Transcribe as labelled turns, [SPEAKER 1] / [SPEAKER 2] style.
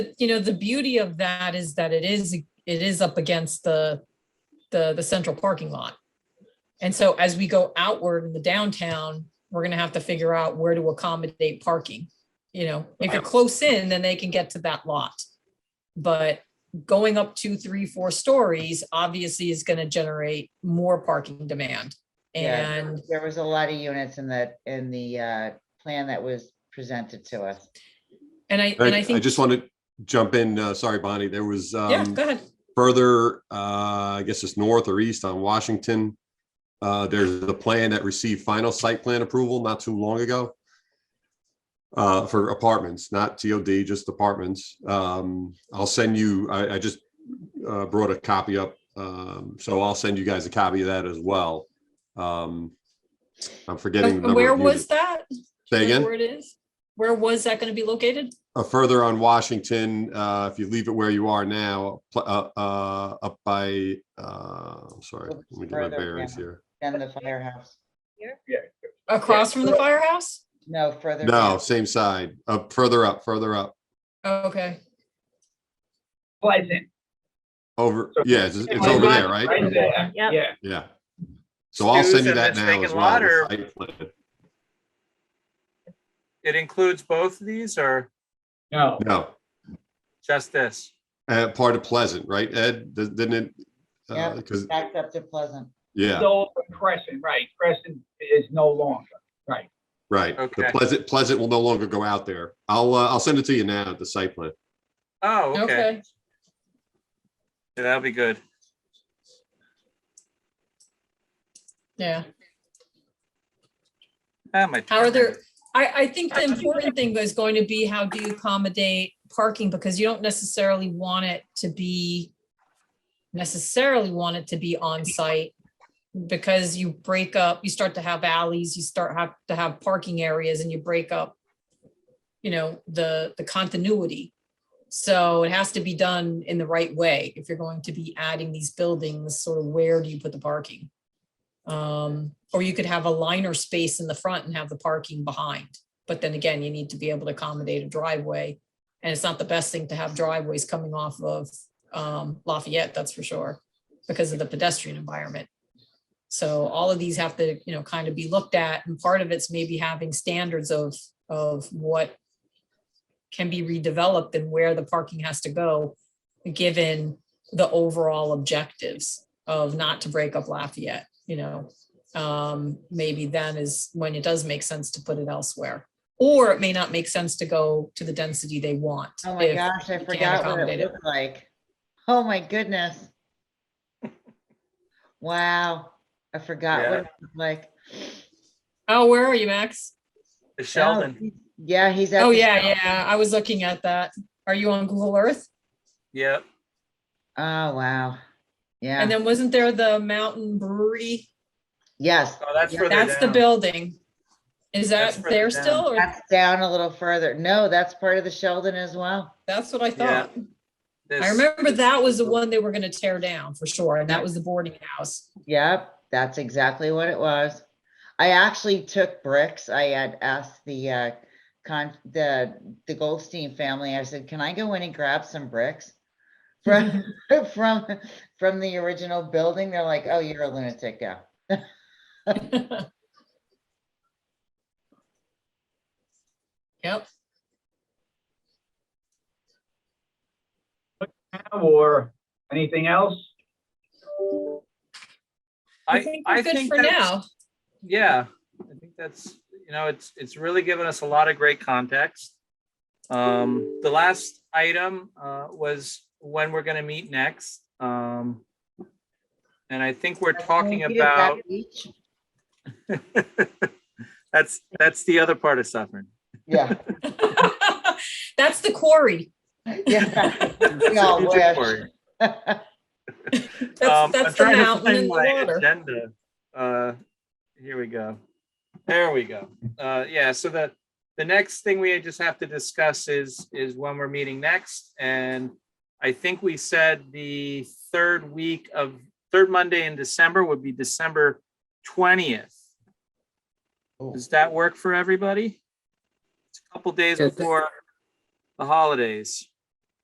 [SPEAKER 1] you know, the beauty of that is that it is, it is up against the, the, the central parking lot. And so as we go outward in the downtown, we're gonna have to figure out where to accommodate parking. You know, if you're close in, then they can get to that lot. But going up two, three, four stories obviously is gonna generate more parking demand.
[SPEAKER 2] Yeah.
[SPEAKER 1] And
[SPEAKER 2] There was a lot of units in the, in the uh, plan that was presented to us.
[SPEAKER 1] And I, and
[SPEAKER 3] I,
[SPEAKER 1] I
[SPEAKER 3] I
[SPEAKER 1] think,
[SPEAKER 3] just want to jump in, uh, sorry, Bonnie, there was,
[SPEAKER 1] yeah,
[SPEAKER 3] um,
[SPEAKER 1] go ahead.
[SPEAKER 3] further, uh, I guess it's north or east on Washington. Uh, there's the plan that received final site plan approval not too long ago. Uh, for apartments, not TOD, just apartments. Um, I'll send you, I, I just, uh, brought a copy up. Um, so I'll send you guys a copy of that as well. Um, I'm forgetting.
[SPEAKER 1] And
[SPEAKER 3] the number
[SPEAKER 1] Uh, Where
[SPEAKER 3] of
[SPEAKER 1] was
[SPEAKER 3] units.
[SPEAKER 1] that? Do you
[SPEAKER 3] Say
[SPEAKER 1] know
[SPEAKER 3] again?
[SPEAKER 1] Where it is? Where was that going to be located?
[SPEAKER 3] uh, further on Washington, uh, if you leave it where you are now, pl- uh, uh, up by, uh, I'm sorry,
[SPEAKER 2] Well,
[SPEAKER 3] let me get my
[SPEAKER 2] further
[SPEAKER 3] bearings
[SPEAKER 2] down.
[SPEAKER 3] here.
[SPEAKER 2] Then the firehouse,
[SPEAKER 1] Across from the firehouse?
[SPEAKER 2] no further.
[SPEAKER 3] No,
[SPEAKER 2] down.
[SPEAKER 3] same side, up, further up, further up,
[SPEAKER 1] Oh, Okay.
[SPEAKER 4] Pleasant.
[SPEAKER 3] over, yeah, it's, it's
[SPEAKER 4] Right
[SPEAKER 3] over there,
[SPEAKER 4] there,
[SPEAKER 3] right?
[SPEAKER 4] there,
[SPEAKER 5] Yep.
[SPEAKER 4] yeah.
[SPEAKER 3] Yeah. So I'll
[SPEAKER 6] Stu
[SPEAKER 3] send you
[SPEAKER 6] says
[SPEAKER 3] that
[SPEAKER 6] it's
[SPEAKER 3] now
[SPEAKER 6] vacant
[SPEAKER 3] as well.
[SPEAKER 6] lot
[SPEAKER 3] the
[SPEAKER 6] or-
[SPEAKER 3] site plan.
[SPEAKER 6] It includes both of these or
[SPEAKER 4] No,
[SPEAKER 3] No,
[SPEAKER 6] just this?
[SPEAKER 3] uh, part of Pleasant, right, Ed? Does- Didn't it? uh,
[SPEAKER 2] Yep.
[SPEAKER 3] Cause,
[SPEAKER 2] Backed up to Pleasant.
[SPEAKER 3] yeah,
[SPEAKER 4] no, Crescent, right, Crescent is no longer, right.
[SPEAKER 3] right. The
[SPEAKER 6] Okay.
[SPEAKER 3] Pleasant, Pleasant will no longer go out there. I'll, uh, I'll send it to you now, the site plan.
[SPEAKER 6] Oh, okay.
[SPEAKER 1] Okay.
[SPEAKER 6] Yeah, That'll be good.
[SPEAKER 1] Yeah.
[SPEAKER 6] Ah, my
[SPEAKER 1] How are
[SPEAKER 6] turn.
[SPEAKER 1] there, I, I think the important thing is going to be how do you accommodate parking? Because you don't necessarily want it to be necessarily want it to be on site because you break up, you start to have alleys, you start have to have parking areas and you break up, you know, the, the continuity. So it has to be done in the right way. If you're going to be adding these buildings, sort of where do you put the parking? Um, or you could have a liner space in the front and have the parking behind. But then again, you need to be able to accommodate a driveway. And it's not the best thing to have driveways coming off of um, Lafayette, that's for sure, because of the pedestrian environment. So all of these have to, you know, kind of be looked at and part of it's maybe having standards of, of what can be redeveloped and where the parking has to go, given the overall objectives of not to break up Lafayette, you know, um, maybe then is when it does make sense to put it elsewhere. Or it may not make sense to go to the density they want.
[SPEAKER 2] Oh my
[SPEAKER 1] if-
[SPEAKER 2] gosh, I
[SPEAKER 1] can't
[SPEAKER 2] forgot what
[SPEAKER 1] accommodate
[SPEAKER 2] it
[SPEAKER 1] it.
[SPEAKER 2] looked like. Oh my goodness. Wow, I forgot what
[SPEAKER 6] Yeah.
[SPEAKER 2] it looked like.
[SPEAKER 1] Oh, where are you, Max?
[SPEAKER 6] The
[SPEAKER 2] Oh,
[SPEAKER 6] Sheldon.
[SPEAKER 2] he's- Yeah, he's. at
[SPEAKER 1] Oh,
[SPEAKER 2] the
[SPEAKER 1] yeah,
[SPEAKER 2] Sheldon.
[SPEAKER 1] yeah, I was looking at that. Are you on Google Earth?
[SPEAKER 6] Yep.
[SPEAKER 2] Oh, wow.
[SPEAKER 1] And
[SPEAKER 2] Yeah,
[SPEAKER 1] then wasn't there the Mountain Brewery?
[SPEAKER 2] yes,
[SPEAKER 6] Oh, that's
[SPEAKER 2] Yeah,
[SPEAKER 6] further
[SPEAKER 1] That's the
[SPEAKER 6] down.
[SPEAKER 1] building. Is
[SPEAKER 6] That's
[SPEAKER 1] that
[SPEAKER 6] further
[SPEAKER 1] there
[SPEAKER 6] down.
[SPEAKER 1] still? Or
[SPEAKER 2] that's down a little further. No, that's part of the Sheldon as well.
[SPEAKER 1] that's what I
[SPEAKER 6] Yeah.
[SPEAKER 1] thought.
[SPEAKER 6] This-
[SPEAKER 1] I remember that was the one they were gonna tear down for sure, and that was the boarding house.
[SPEAKER 2] Yep, that's exactly what it was. I actually took bricks. I had asked the uh con the the Goldstein family, I said, can I go in and grab some bricks? From from from the original building. They're like, oh, you're a lunatic, yeah.
[SPEAKER 1] Yep,
[SPEAKER 4] Or anything else?
[SPEAKER 1] I
[SPEAKER 6] I,
[SPEAKER 1] think
[SPEAKER 6] I
[SPEAKER 1] we're good
[SPEAKER 6] think
[SPEAKER 1] for
[SPEAKER 6] that's,
[SPEAKER 1] now.
[SPEAKER 6] yeah, I think that's, you know, it's, it's really given us a lot of great context. Um, the last item, uh, was when we're gonna meet next. Um, and I think we're
[SPEAKER 2] Like, can
[SPEAKER 6] talking
[SPEAKER 2] we do that
[SPEAKER 6] about,
[SPEAKER 2] each?
[SPEAKER 6] that's, that's the other part of suffering.
[SPEAKER 2] Yeah,
[SPEAKER 1] That's the quarry.
[SPEAKER 2] yeah. We all wish.
[SPEAKER 1] That's,
[SPEAKER 6] Um, I'm
[SPEAKER 1] that's the
[SPEAKER 6] trying to
[SPEAKER 1] mountain
[SPEAKER 6] find
[SPEAKER 1] and the
[SPEAKER 6] my
[SPEAKER 1] water.
[SPEAKER 6] Agenda. Uh, here we go. There we go. Uh, yeah, so the, the next thing we just have to discuss is, is when we're meeting next. And I think we said the third week of, third Monday in December would be December twentieth.
[SPEAKER 2] Oh.
[SPEAKER 6] Does that work for everybody? It's a couple days
[SPEAKER 1] Yes, it-
[SPEAKER 6] before the holidays.